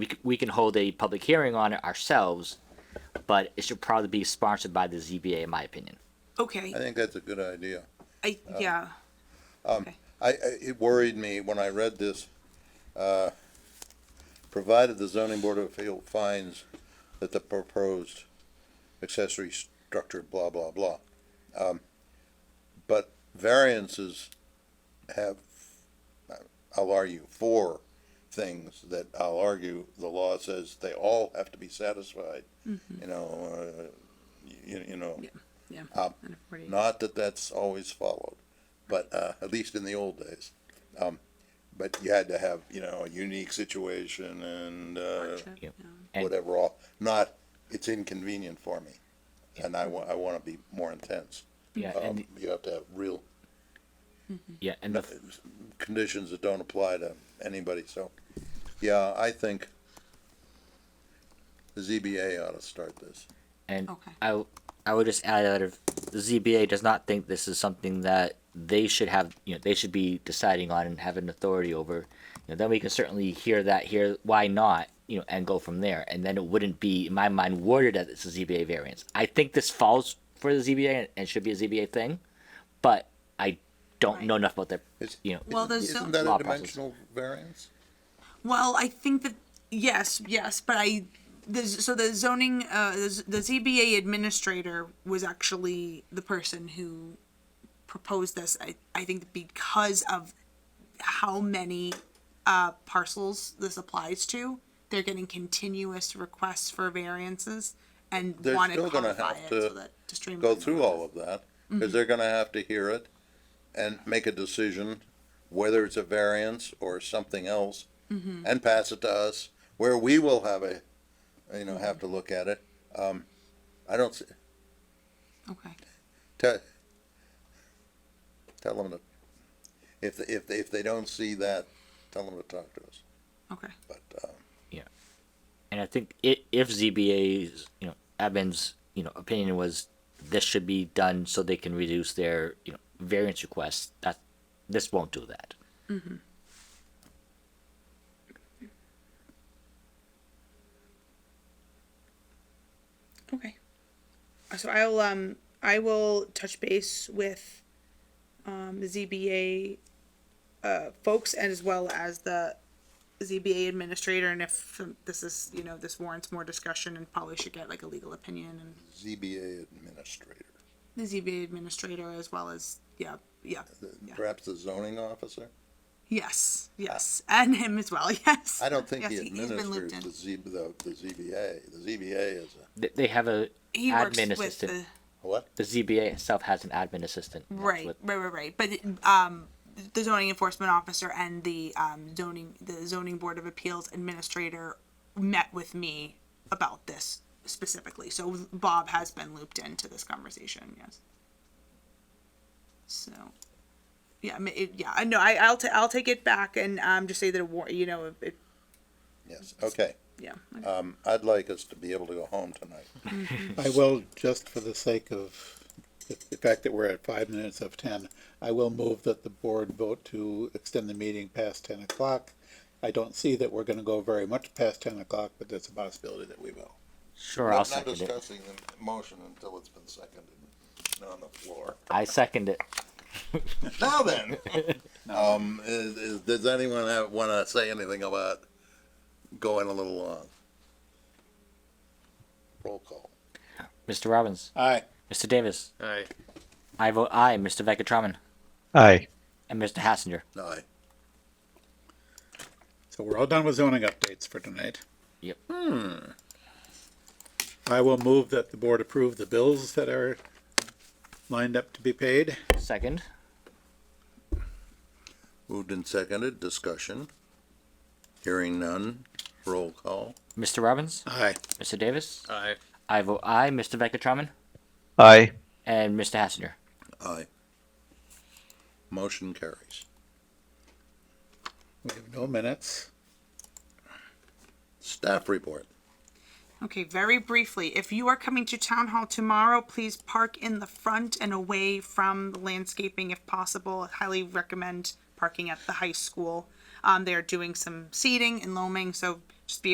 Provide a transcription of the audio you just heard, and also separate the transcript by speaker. Speaker 1: we, c- we can hold a public hearing on it ourselves, but it should probably be sponsored by the ZBA, in my opinion.
Speaker 2: Okay,
Speaker 3: I think that's a good idea.
Speaker 2: I,
Speaker 3: uh,
Speaker 2: yeah,
Speaker 3: I, I, it worried me when I read this, uh, provided the zoning board of appeal finds that the proposed accessory structure, blah, blah, blah. Um, but variances have, I'll argue, four things that I'll argue the law says they all have to be satisfied. You know, uh, you, you know,
Speaker 2: Mm-hmm. yeah.
Speaker 3: Um,
Speaker 2: Under 48.
Speaker 3: not that that's always followed, but uh, at least in the old days. Um, but you had to have, you know, a unique situation and uh,
Speaker 2: Hardship,
Speaker 1: Yep.
Speaker 2: yeah.
Speaker 1: And-
Speaker 3: whatever. All not it's inconvenient for me, and I want I want to be more intense.
Speaker 1: Yeah,
Speaker 3: Um,
Speaker 1: and,
Speaker 3: you have to have real
Speaker 1: yeah, and the,
Speaker 3: conditions that don't apply to anybody. So, yeah, I think the ZBA ought to start this.
Speaker 1: And
Speaker 2: Okay.
Speaker 1: I, w- I would just add that if the ZBA does not think this is something that they should have, you know, they should be deciding on and having authority over, you know, then we can certainly hear that here, why not, you know, and go from there. And then it wouldn't be, in my mind, worded as it's a ZBA variance. I think this falls for the ZBA and, and should be a ZBA thing, but I don't know
Speaker 2: Right.
Speaker 1: enough about their,
Speaker 3: It's,
Speaker 1: you know,
Speaker 2: Well, the
Speaker 3: isn't
Speaker 2: zone-
Speaker 3: that
Speaker 1: law
Speaker 3: a
Speaker 1: process.
Speaker 3: dimensional variance?
Speaker 2: Well, I think that, yes, yes, but I, the, z- so the zoning, uh, the z- the ZBA administrator was actually the person who proposed this, I, I think because of how many, uh, parcels this applies to, they're getting continuous requests for variances and
Speaker 3: They're
Speaker 2: wanted to
Speaker 3: still gonna
Speaker 2: codify
Speaker 3: have
Speaker 2: it
Speaker 3: to
Speaker 2: so that to
Speaker 3: go
Speaker 2: streamline the
Speaker 3: through all of that,
Speaker 2: Mm-hmm.
Speaker 3: because they're gonna have to hear it and make a decision, whether it's a variance or something else,
Speaker 2: Mm-hmm.
Speaker 3: and pass it to us, where we will have a, you know, have to look at it. Um, I don't, see-
Speaker 2: Okay,
Speaker 3: tell, tell them to, if, they- if, they- if they don't see that, tell them to talk to us,
Speaker 2: okay.
Speaker 3: but, um,
Speaker 1: And I think i if ZBA's, you know, admin's, you know, opinion was this should be done so they can reduce their, you know, variance requests, that, this won't do that.
Speaker 2: Okay. So I'll um I will touch base with um the ZBA uh folks and as well as the ZBA administrator and if this is you know this warrants more discussion and probably should get like a legal opinion and
Speaker 3: ZBA administrator,
Speaker 2: the ZBA administrator as well as yeah yeah
Speaker 3: the-
Speaker 2: Yeah.
Speaker 3: perhaps the zoning officer?
Speaker 2: yes yes and him as well yes
Speaker 3: Uh, I don't think
Speaker 2: yes,
Speaker 3: he
Speaker 2: he- he's been
Speaker 3: administers
Speaker 2: looped in
Speaker 3: the Z, the, the ZBA. The ZBA is a,
Speaker 1: They, they have a
Speaker 2: he works
Speaker 1: admin
Speaker 2: with
Speaker 1: assistant.
Speaker 2: the
Speaker 3: what?
Speaker 1: The ZBA itself has an admin assistant. That's
Speaker 2: Right,
Speaker 1: what-
Speaker 2: right, right, right. But um, the zoning enforcement officer and the um, zoning the zoning board of appeals administrator met with me about this specifically. So Bob has been looped into this conversation. Yes. So, yeah, I mean, it, yeah. I know. I I'll t- I'll take it back and um, just say that a war. You know, it, it,
Speaker 3: Yes, okay.
Speaker 2: yeah.
Speaker 3: Um, I'd like us to be able to go home tonight.
Speaker 4: I will, just for the sake of the the fact that we're at five minutes of ten, I will move that the board vote to extend the meeting past ten o'clock. I don't see that we're gonna go very much past ten o'clock, but there's a possibility that we will.
Speaker 1: Sure, I'll second
Speaker 3: I'm not
Speaker 1: it.
Speaker 3: discussing the motion until it's been seconded and on the floor.
Speaker 1: I second it.
Speaker 3: Now then, um, is, is, does anyone have, wanna say anything about going a little long? Roll call.
Speaker 1: Mr. Robbins,
Speaker 4: Aye.
Speaker 1: Mr. Davis,
Speaker 5: Aye.
Speaker 1: I vote aye, Mr. Veckatraman,
Speaker 5: Aye.
Speaker 1: and Mr. Hassinger.
Speaker 3: Aye.
Speaker 4: So we're all done with zoning updates for tonight. Hmm.
Speaker 1: Yep.
Speaker 4: I will move that the board approve the bills that are lined up to be paid.
Speaker 1: Second.
Speaker 3: Moved and seconded, discussion. Hearing none, roll call.
Speaker 1: Mr. Robbins,
Speaker 4: Aye.
Speaker 1: Mr. Davis,
Speaker 5: Aye.
Speaker 1: I vote aye, Mr. Veckatraman,
Speaker 5: Aye.
Speaker 1: and Mr. Hassinger.
Speaker 3: Aye. Motion carries.
Speaker 4: We have no minutes.
Speaker 3: Staff report.
Speaker 2: Okay, very briefly, if you are coming to town hall tomorrow, please park in the front and away from the landscaping if possible. I highly recommend parking at the high school. Um, they are doing some seeding and loaming, so just be